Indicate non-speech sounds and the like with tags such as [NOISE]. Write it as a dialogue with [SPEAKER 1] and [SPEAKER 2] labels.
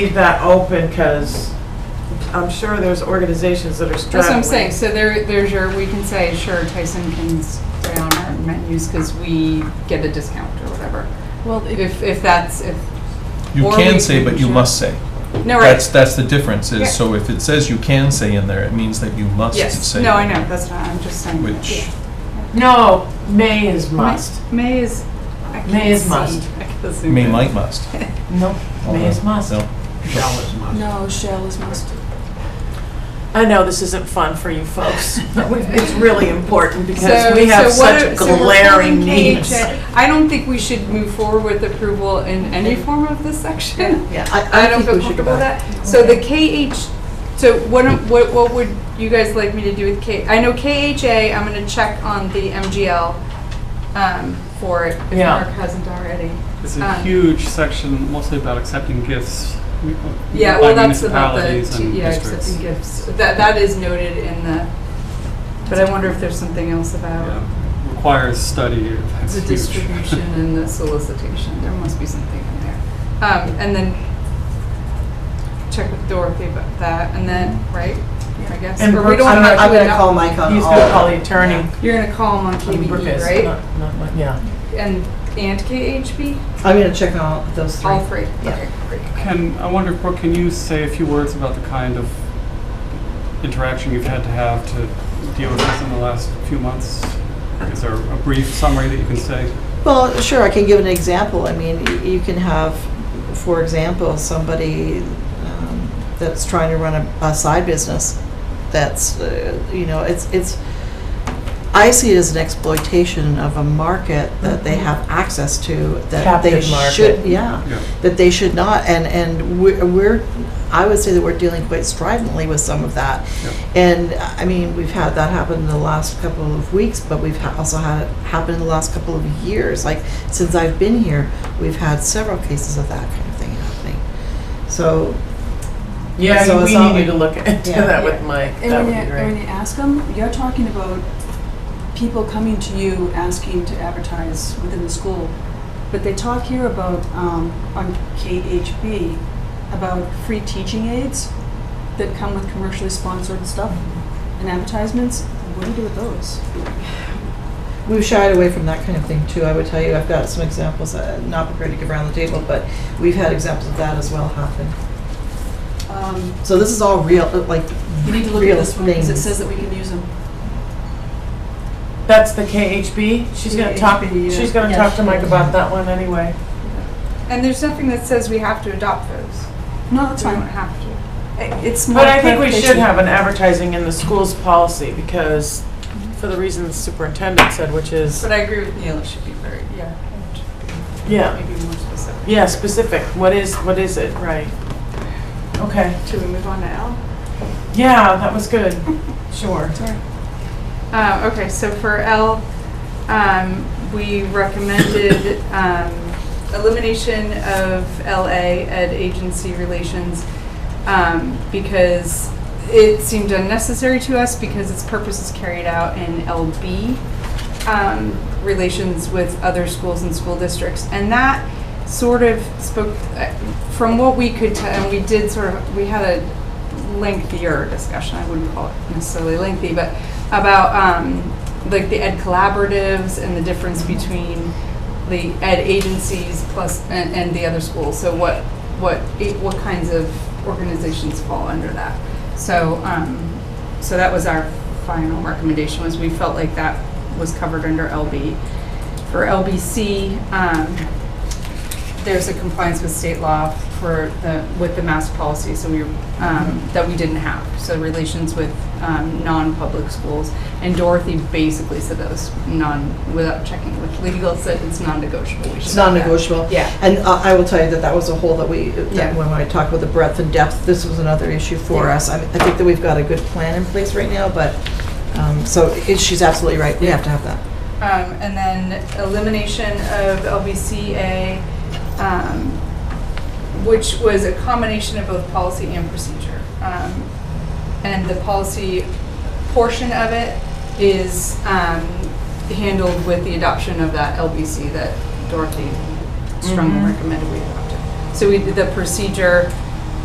[SPEAKER 1] leave that open because I'm sure there's organizations that are
[SPEAKER 2] That's what
[SPEAKER 1] struggling.
[SPEAKER 2] I'm saying, so there, there's your, we can say, sure, Tyson can stay on our menus because we get a discount or whatever.
[SPEAKER 3] Well, if,
[SPEAKER 2] If, if that's, if,
[SPEAKER 4] You
[SPEAKER 2] Or we
[SPEAKER 4] can say,
[SPEAKER 2] can
[SPEAKER 4] but you
[SPEAKER 2] share.
[SPEAKER 4] must say.
[SPEAKER 2] no,
[SPEAKER 4] That's,
[SPEAKER 2] right.
[SPEAKER 4] that's the difference
[SPEAKER 2] Yeah.
[SPEAKER 4] is, so if it says you can say in there, it means that you must
[SPEAKER 2] Yes,
[SPEAKER 4] say.
[SPEAKER 2] no, I
[SPEAKER 4] it,
[SPEAKER 2] know, that's not, I'm just saying.
[SPEAKER 4] Which,
[SPEAKER 1] No, may is must.
[SPEAKER 2] May is, I can't see.
[SPEAKER 1] May is must.
[SPEAKER 2] I can't see.
[SPEAKER 4] may, might, must.
[SPEAKER 1] No, [LAUGHS] may is must.
[SPEAKER 4] No.
[SPEAKER 5] Shall is must.
[SPEAKER 3] no, shall is must.
[SPEAKER 1] I know this isn't fun for you
[SPEAKER 2] [LAUGHS]
[SPEAKER 1] folks, but we- it's really important because
[SPEAKER 2] So-
[SPEAKER 1] we have
[SPEAKER 2] so what
[SPEAKER 1] such
[SPEAKER 2] are- so we're
[SPEAKER 1] glaring
[SPEAKER 2] holding K,
[SPEAKER 1] needs.
[SPEAKER 2] J. I don't think we should move forward with approval in any form of this section.
[SPEAKER 5] Yeah, I,
[SPEAKER 2] I
[SPEAKER 5] I
[SPEAKER 2] don't feel
[SPEAKER 5] think we should go
[SPEAKER 2] comfortable with
[SPEAKER 5] back.
[SPEAKER 2] that. So the KH, so what, am- what, what would you guys like me to do with K? I know KHA, I'm gonna check on the MGL, um, for it, if
[SPEAKER 1] Yeah.
[SPEAKER 2] Mark hasn't already.
[SPEAKER 6] It's a
[SPEAKER 2] Um,
[SPEAKER 6] huge section, mostly about accepting gifts. m-
[SPEAKER 2] Yeah,
[SPEAKER 6] by
[SPEAKER 2] well, that's about the,
[SPEAKER 6] municipalities
[SPEAKER 2] two-
[SPEAKER 6] and
[SPEAKER 2] yeah,
[SPEAKER 6] districts.
[SPEAKER 2] accepting gifts. That, that is noted in the, but I wonder if there's something else about
[SPEAKER 6] Yeah, Requires study. That's
[SPEAKER 2] the
[SPEAKER 6] huge.
[SPEAKER 2] distribution and the solicitation. There must be something in there. Um, and then check with Dorothy about that, and then, right, I guess?
[SPEAKER 1] And
[SPEAKER 2] Or we
[SPEAKER 1] Brooke-
[SPEAKER 2] don't
[SPEAKER 1] I'm
[SPEAKER 2] have to
[SPEAKER 5] I'm gonna
[SPEAKER 2] adopt-
[SPEAKER 5] call Mike on all.
[SPEAKER 1] He's gonna call the attorney.
[SPEAKER 2] You're gonna call them on
[SPEAKER 1] Brooke
[SPEAKER 2] KBE,
[SPEAKER 1] is,
[SPEAKER 2] right?
[SPEAKER 1] not- not my- Yeah.
[SPEAKER 2] And, and KHB?
[SPEAKER 5] I'm gonna check all those three.
[SPEAKER 2] All three?
[SPEAKER 5] Yeah.
[SPEAKER 2] Okay, great.
[SPEAKER 6] [LAUGHS] Can, I wonder, Brooke, can you say a few words about the kind of interaction you've had to have to deal with this in the last few months? Is there a brief summary that you can say?
[SPEAKER 5] Well, sure, I can give an example. I mean, y- you can have, for example, somebody um, that's trying to run a, a side business. That's, uh, you know, it's, it's, I see it as an exploitation of a market that they have access to that they
[SPEAKER 1] Captive market.
[SPEAKER 5] should, yeah,
[SPEAKER 6] Yeah.
[SPEAKER 5] that they should not. And, and we're- we're, I would say that we're dealing quite stridently with some of that. And I mean, we've had that happen in the last couple of weeks, but we've ha- also had it happen in the last couple of years. Like since I've been here, we've had several cases of that kind of thing happening. So So
[SPEAKER 1] Yeah,
[SPEAKER 5] it's
[SPEAKER 1] we
[SPEAKER 5] not
[SPEAKER 1] need you
[SPEAKER 5] like-
[SPEAKER 1] to look [LAUGHS] into
[SPEAKER 5] Yeah.
[SPEAKER 1] that with Mike.
[SPEAKER 3] And
[SPEAKER 1] That
[SPEAKER 3] when
[SPEAKER 1] would be
[SPEAKER 3] you, and when
[SPEAKER 1] great.
[SPEAKER 3] you ask them, you're talking about people coming to you asking to advertise within the school. But they talk here about, um, on KHB, about free teaching aids that come with commercially sponsored stuff and advertisements. What do you do with those?
[SPEAKER 5] we've shied away from that kind of thing too. I would tell you, I've got some examples. uh not prepared to give around the table, but we've had examples of that as well happen.
[SPEAKER 3] Um,
[SPEAKER 5] So this is all real, uh, like
[SPEAKER 3] We need to look at
[SPEAKER 5] real
[SPEAKER 3] this one, because it
[SPEAKER 5] things.
[SPEAKER 3] says that we can use them.
[SPEAKER 1] That's the KHB. She's gonna talk,
[SPEAKER 3] KHB, yeah.
[SPEAKER 1] she's gonna
[SPEAKER 3] Yeah,
[SPEAKER 1] talk
[SPEAKER 3] she
[SPEAKER 1] to Mike about that one anyway.
[SPEAKER 2] And there's nothing that says we have to adopt those.
[SPEAKER 3] No, that's
[SPEAKER 2] We don't
[SPEAKER 3] fine.
[SPEAKER 2] have to.
[SPEAKER 3] I- It's more
[SPEAKER 1] But I think we should
[SPEAKER 3] clarification.
[SPEAKER 1] have an advertising in the school's policy because, for the reason the superintendent said, which is,
[SPEAKER 2] But I agree with Neil, it should be very, yeah, it should be
[SPEAKER 1] Yeah.
[SPEAKER 2] maybe more specific.
[SPEAKER 1] yeah, specific. What is, what is it? Right. Okay.
[SPEAKER 2] Should we move on to L?
[SPEAKER 1] Yeah, that was good. [LAUGHS] Sure.
[SPEAKER 2] Uh, okay, so for L, um, we recommended, um, elimination of LA ed agency relations, um, because it seemed unnecessary to us because its purpose is carried out in LB, um, relations with other schools and school districts. And that sort of spoke, uh, from what we could tell, and we did sort of, we had a lengthier discussion, I wouldn't call it necessarily lengthy, but about um, like the ed collaboratives and the difference between the ed agencies plus, and, and the other schools. So what, what, it- what kinds of organizations fall under that? So, um, so that was our final recommendation, was we felt like that was covered under LB. For LBC, um, there's a compliance with state law for the, with the mask policy, so we, um,
[SPEAKER 5] Mm-hmm.
[SPEAKER 2] that we didn't have. So relations with, um, non-public schools. And Dorothy basically said that was non, without checking with legal, said it's non-negotiable. We should
[SPEAKER 5] It's
[SPEAKER 2] have that.
[SPEAKER 5] non-negotiable.
[SPEAKER 2] Yeah.
[SPEAKER 5] And uh, I will tell you that that was a hole that we,
[SPEAKER 2] Yeah.
[SPEAKER 5] that when I talk about the breadth and depth, this was another issue for
[SPEAKER 2] Yeah.
[SPEAKER 5] us. I mean, I think that we've got a good plan in place right now, but, um, so it- she's absolutely right, we have to have that.
[SPEAKER 2] Um, and then elimination of LBCA, um, which was a combination of both policy and procedure. Um, and the policy portion of it is, um, handled with the adoption of that LBC that Dorothy strongly recommended we adopt. it. So we, the procedure